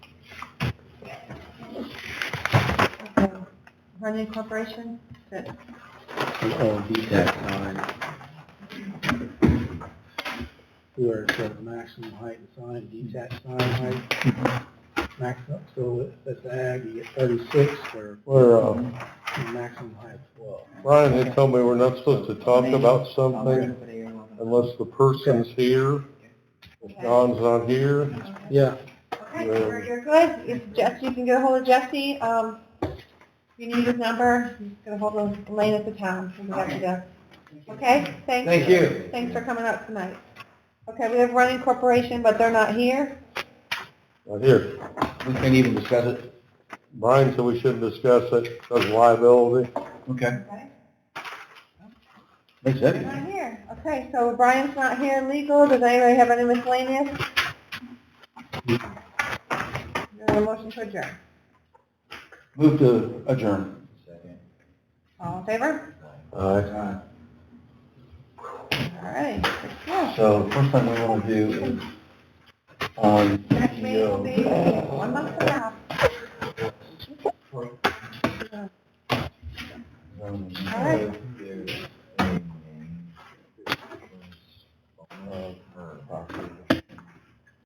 Runyon Corporation? Good. Oh, DTEC sign. Where it says maximum height of sign, detached sign height, Mm-hmm. max, so if it's ag, you get thirty-six, or We're, uh, maximum height of twelve. Ryan had told me we're not supposed to talk about something unless the person's here. If John's not here, Yeah, Okay, you're, you're good. If Jesse, you can get a hold of Jesse, um, you need his number, he's gonna hold of Elaine at the town, when we got you there. Okay, thanks. Thank you. Thanks for coming out tonight. Okay, we have Running Corporation, but they're not here. not here. We can't even discuss it. Brian said we shouldn't discuss it, because liability. Okay. Okay. Makes They're not sense. here. Okay, so Brian's not here, legal, does anybody have any miscellaneous? Is there a motion to adjourn? Move to adjourn. Second. All in favor? Aye. All right, six, yes. So first thing we want to do um, is on Next meeting will be PTO. one month from now. All right. um,